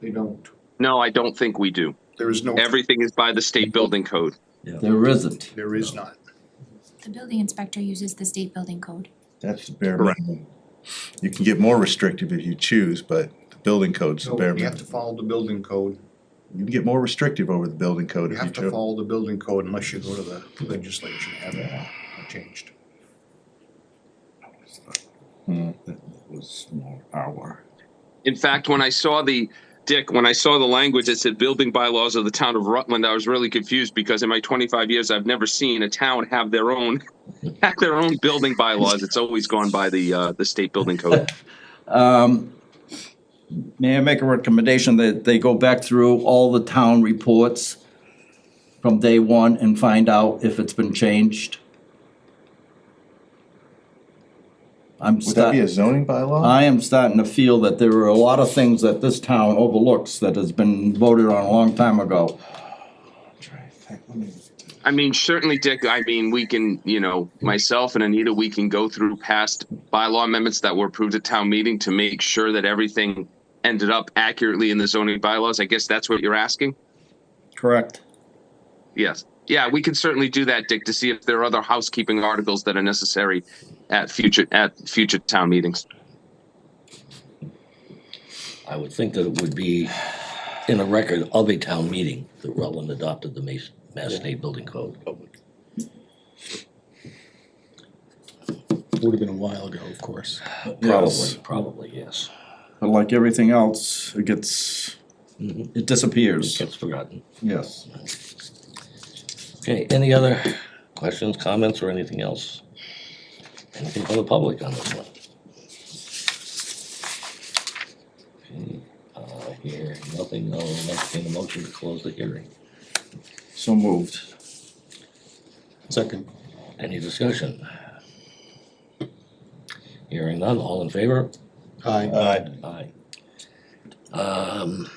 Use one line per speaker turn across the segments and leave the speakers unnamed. They don't.
No, I don't think we do.
There is no,
Everything is by the state building code.
There isn't.
there is not.
The building inspector uses the state building code.
That's the bare
Correct.
minimum. You can get more restrictive if you choose, but the building code's the
So
bare
we have to
minimum.
follow the building code.
You can get more restrictive over the building code
You
if you
have to
choose.
follow the building code unless you go to the legislature and have it uh, changed.
Hmm.
That was more our.
In fact, when I saw the, Dick, when I saw the language that said building bylaws of the town of Rutland, I was really confused because in my twenty-five years, I've never seen a town have their own, have their own building bylaws. It's always gone by the, uh, the state building code.
Um, May I make a recommendation that they go back through all the town reports from day one and find out if it's been changed? I'm
Would that be a
starting,
zoning bylaw?
I am starting to feel that there are a lot of things that this town overlooks that has been voted on a long time ago.
Try to think, let me-
I mean, certainly, Dick, I mean, we can, you know, myself and Anita, we can go through past bylaw amendments that were approved at town meeting to make sure that everything ended up accurately in the zoning bylaws. I guess that's what you're asking?
Correct.
Yes. Yeah, we can certainly do that, Dick, to see if there are other housekeeping articles that are necessary at future, at future town meetings.
I would think that it would be in the record of a town meeting that Rutland adopted the Mass, Mass State Building Code.
Would have been a while ago, of course.
Yes.
Probably, probably, yes.
But like everything else, it gets,
Mhm.
it disappears,
Gets forgotten.
yes.
Okay, any other questions, comments, or anything else? Anything from the public on this one? Okay, uh, here, nothing, I'll entertain a motion to close the hearing.
So moved.
Second.
Any discussion? Hearing none, all in favor?
Uh,
Aye.
Aye. Um,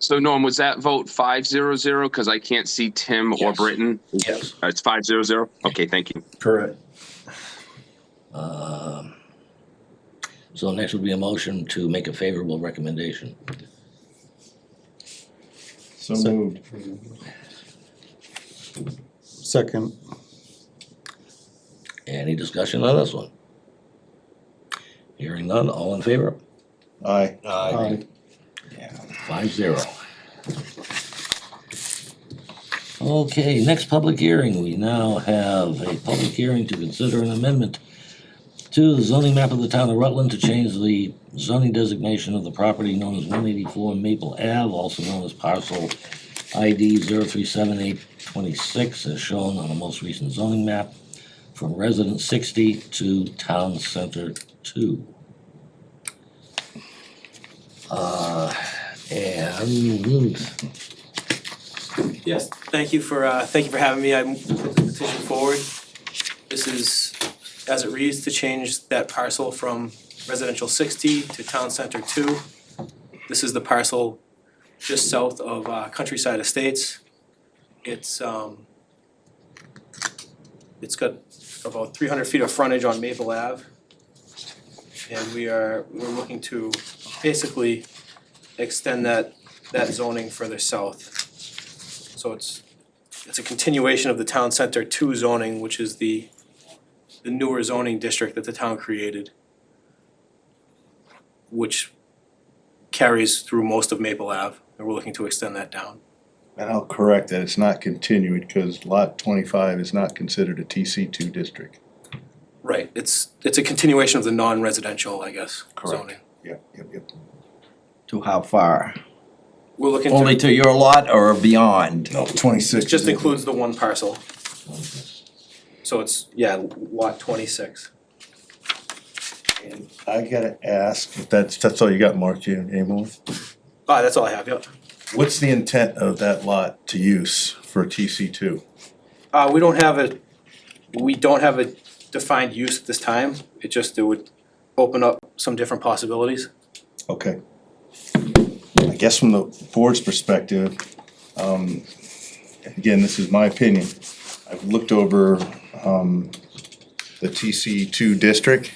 So Norm, was that vote five zero zero? Because I can't see Tim or
Yes.
Britton.
yes,
Uh, It's five zero zero? Okay, thank you.
Correct.
um, so next would be a motion to make a favorable recommendation.
So moved.
Second.
Any discussion on this one? Hearing none, all in favor?
Aye.
Aye.
Five zero. Okay, next public hearing, we now have a public hearing to consider an amendment to the zoning map of the town of Rutland to change the zoning designation of the property known as one eighty-four Maple Ave, also known as parcel ID 037826, as shown on the most recent zoning map, from residence sixty to town center two. Uh, and
Yes, thank you for, uh, thank you for having me. I move the petition forward. This is, as it reads, to change that parcel from residential sixty to town center two. This is the parcel just south of uh, Countryside Estates. It's, um, it's got about three hundred feet of frontage on Maple Ave. And we are, we're looking to basically extend that, that zoning further south. So it's, it's a continuation of the town center two zoning, which is the, the newer zoning district that the town created, which carries through most of Maple Ave, and we're looking to extend that down.
And I'll correct that, it's not continued, because lot twenty-five is not considered a TC two district.
Right. It's, it's a continuation of the non-residential, I guess,
Correct.
zoning.
Yep, yep, yep.
To how far?
We're looking
Only
to,
to your lot or beyond?
No, twenty-six.
it just includes the one parcel,
uh,
so it's, yeah, lot twenty-six.
And I gotta ask, if that's, that's all you got, Mark, you, any more?
Ah, that's all I have, yep.
What's the intent of that lot to use for TC two?
Uh, we don't have a, we don't have a defined use at this time, it just, it would open up some different possibilities.
Okay. I guess from the board's perspective, um, again, this is my opinion. I've looked over, um, the TC two district.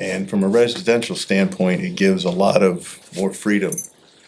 And from a residential standpoint, it gives a lot of more freedom